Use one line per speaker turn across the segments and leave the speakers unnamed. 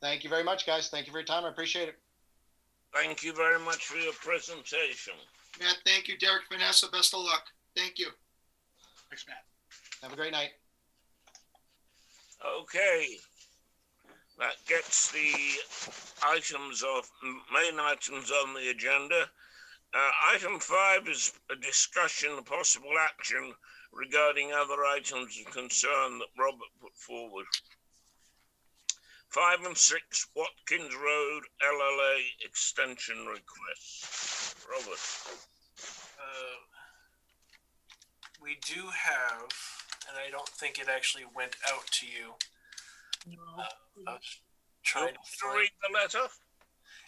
Thank you very much, guys. Thank you for your time. I appreciate it.
Thank you very much for your presentation.
Matt, thank you. Derek Vanessa, best of luck. Thank you.
Thanks, Matt.
Have a great night.
Okay. That gets the items off, main items on the agenda. Uh, item five is a discussion, of possible action regarding other items of concern that Robert put forward. Five and six Watkins Road LLA extension request. Robert,
Uh, we do have, and I don't think it actually went out to you. I was
do you
trying
want
to
me to
find-
read the letter?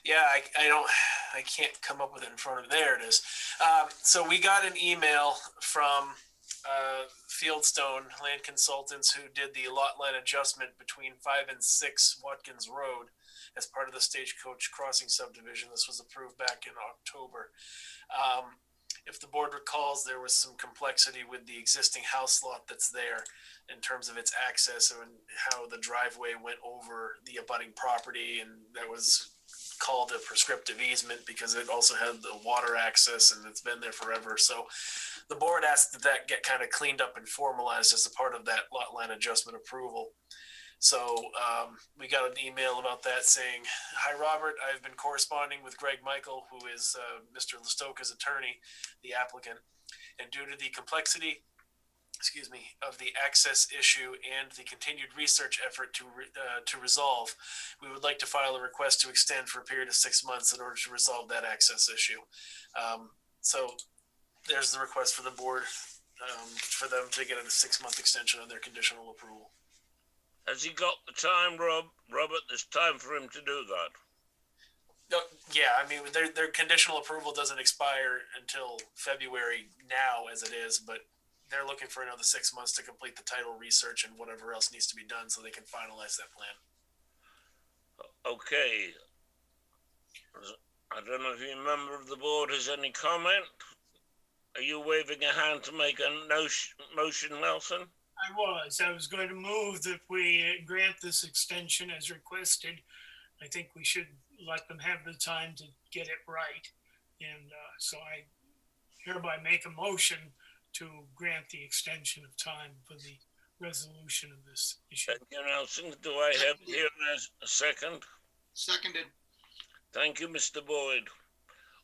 yeah, I, I don't, I can't come up with it in front of, there it is. Um, so we got an email from, uh, Fieldstone Land Consultants who did the lot line adjustment between five and six Watkins Road as part of the Stagecoach Crossing subdivision. This was approved back in October. Um, if the board recalls, there was some complexity with the existing house lot that's there in terms of its access and how the driveway went over the abutting property and that was called a prescriptive easement because it also had the water access and it's been there forever. So the board asked that that get kind of cleaned up and formalized as a part of that lot line adjustment approval. So um, we got an email about that saying, "Hi Robert, I've been corresponding with Greg Michael, who is uh, Mr. Listoka's attorney, the applicant, and due to the complexity." Excuse me, of the access issue and the continued research effort to re- uh, to resolve, we would like to file a request to extend for a period of six months in order to resolve that access issue. Um, so there's the request for the board, um, for them to get a six-month extension on their conditional approval.
Has he got the time, Rob? Robert, there's time for him to do that.
No, Uh, yeah, I mean, their, their conditional approval doesn't expire until February now as it is, but they're looking for another six months to complete the title research and whatever else needs to be done so they can finalize that plan.
Okay. I don't know if any member of the board has any comment. Are you waving a hand to make a notion, motion, Nelson?
I was, I was going to move that we grant this extension as requested. I think we should let them have the time to get it right. And uh, so I hereby make a motion to grant the extension of time for the resolution of this issue.
Thank you, Nelson. Do I have here as a second?
Seconded.
Thank you, Mr. Boyd.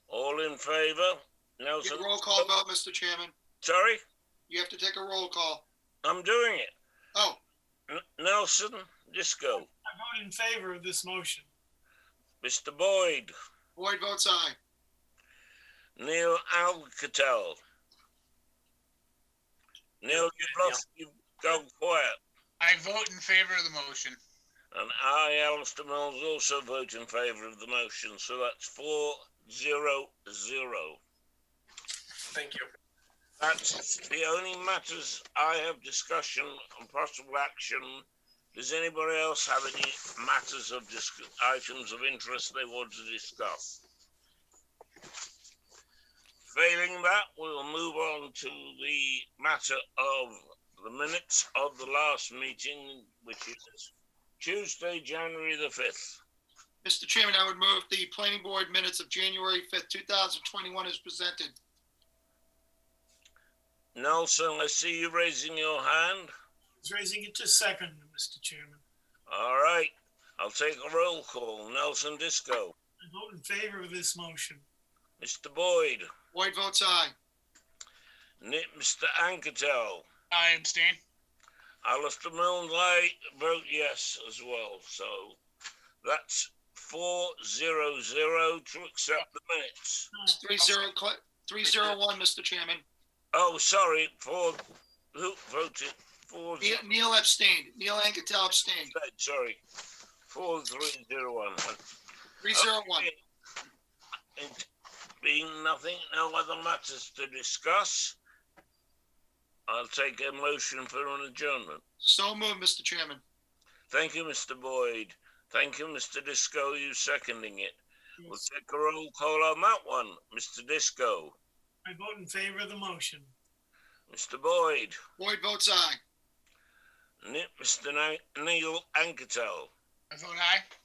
All in favor?
Get
Nelson,
a roll call vote, Mr. Chairman.
sorry,
You have to take a roll call.
I'm doing it.
Oh,
N- Nelson, Disco,
I vote in favor of this motion.
Mr. Boyd,
Boyd votes aye.
Neil Alcatel. Neil, you've lost, you've gone quiet.
I vote in favor of the motion.
And I, Alistair Mills, also vote in favour of the motion, so that's four zero zero.
Thank you.
That's the only matters I have discussion and possible action. Does anybody else have any matters of disc- items of interest they want to discuss? Failing that, we'll move on to the matter of the minutes of the last meeting, which is Tuesday, January the fifth.
Mr. Chairman, I would move the planning board minutes of January fifth, two thousand twenty-one is presented.
Nelson, I see you raising your hand.
I was raising it to second, Mr. Chairman.
All right, I'll take a roll call. Nelson Disco,
I vote in favor of this motion.
Mr. Boyd,
Boyd votes aye.
Ni- Mr. Anketel,
I abstain.
Alistair Milne, I vote yes as well. So that's four zero zero to accept the minutes.
It's three zero, cl- three zero one, Mr. Chairman.
Oh, sorry, four, who voted? Four,
Ne-
zero,
Neil abstained. Neil Anketell abstained.
sorry, four three zero one.
Three zero one.
Okay. It being nothing, no other matters to discuss, I'll take a motion for an adjournment.
So moved, Mr. Chairman.
Thank you, Mr. Boyd. Thank you, Mr. Disco, you seconding it. We'll
Yes.
take a roll call on that one. Mr. Disco,
I vote in favor of the motion.
Mr. Boyd,
Boyd votes aye.
Ni- Mr. Ni- Neil Anketel.
I vote aye.